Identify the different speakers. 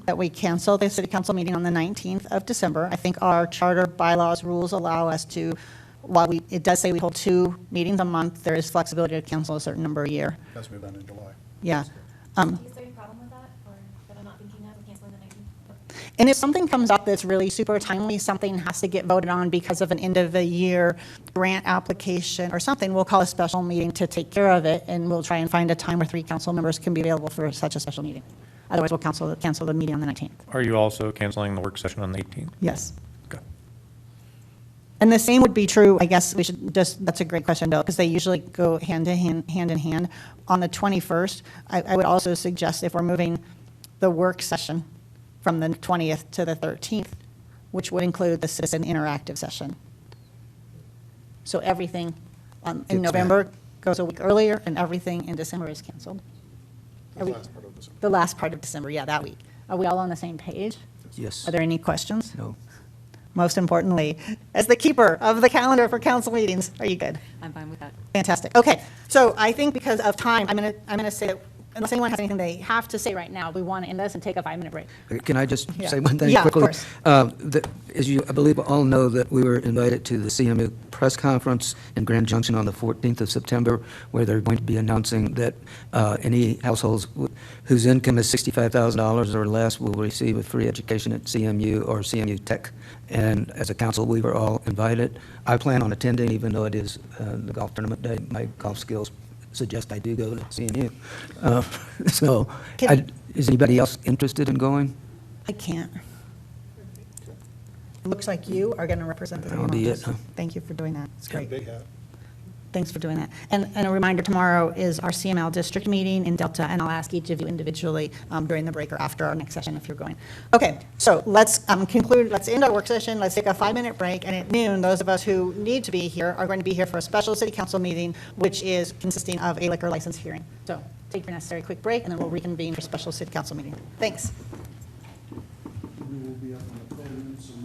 Speaker 1: that we cancel the city council meeting on the 19th of December. I think our charter bylaws rules allow us to, while we, it does say we hold two meetings a month, there is flexibility to cancel a certain number a year.
Speaker 2: Because we've done in July.
Speaker 1: Yeah.
Speaker 3: Is there any problem with that, or that I'm not thinking of, canceling the 19th?
Speaker 1: And if something comes up that's really super timely, something has to get voted on because of an end-of-the-year grant application or something, we'll call a special meeting to take care of it, and we'll try and find a time where three council members can be available for such a special meeting. Otherwise, we'll cancel, cancel the meeting on the 19th.
Speaker 4: Are you also canceling the work session on the 18th?
Speaker 1: Yes.
Speaker 4: Okay.
Speaker 1: And the same would be true, I guess we should just, that's a great question, Bill, because they usually go hand to hand, hand in hand. On the 21st, I, I would also suggest if we're moving the work session from the 20th to the 13th, which would include the citizen interactive session. So everything um, in
Speaker 5: Gets
Speaker 1: November goes a week earlier, and everything in December is canceled.
Speaker 2: The
Speaker 1: Are we-
Speaker 2: last part of December.
Speaker 1: The last part of December, yeah, that week. Are we all on the same page?
Speaker 5: Yes.
Speaker 1: Are there any questions?
Speaker 5: No.
Speaker 1: most importantly, as the keeper of the calendar for council meetings. Are you good?
Speaker 6: I'm fine with that.
Speaker 1: Fantastic. Okay, so I think because of time, I'm going to, I'm going to say that unless anyone has anything they have to say right now, we want to end this and take a five-minute break.
Speaker 5: Can I just
Speaker 1: Yeah.
Speaker 5: say one thing quickly?
Speaker 1: Yeah, of course.
Speaker 5: Um, the- As you, I believe all know that we were invited to the CMU press conference in Grand Junction on the 14th of September, where they're going to be announcing that uh, any households wh- whose income is $65,000 or less will receive a free education at CMU or CMU Tech. And as a council, we were all invited. I plan on attending, even though it is uh, the golf tournament day. My golf skills suggest I do go to CMU. Uh, So,
Speaker 1: Can-
Speaker 5: I- is anybody else interested in going?
Speaker 1: I can't. Looks like you are going to represent the city
Speaker 5: I'll
Speaker 1: of
Speaker 5: be
Speaker 1: Montrose.
Speaker 5: it, huh?
Speaker 1: Thank you for doing that. It's great.
Speaker 2: Big hat.
Speaker 1: Thanks for doing that. And, and a reminder, tomorrow is our CML district meeting in Delta, and I'll ask each of you individually um, during the break or after our next session if you're going. Okay, so let's um, conclude, let's end our work session, let's take a five-minute break, and at noon, those of us who need to be here are going to be here for a special city council meeting, which is consisting of a liquor license hearing. So take your necessary quick break, and then we'll reconvene for special city council meeting. Thanks.
Speaker 7: We will be up on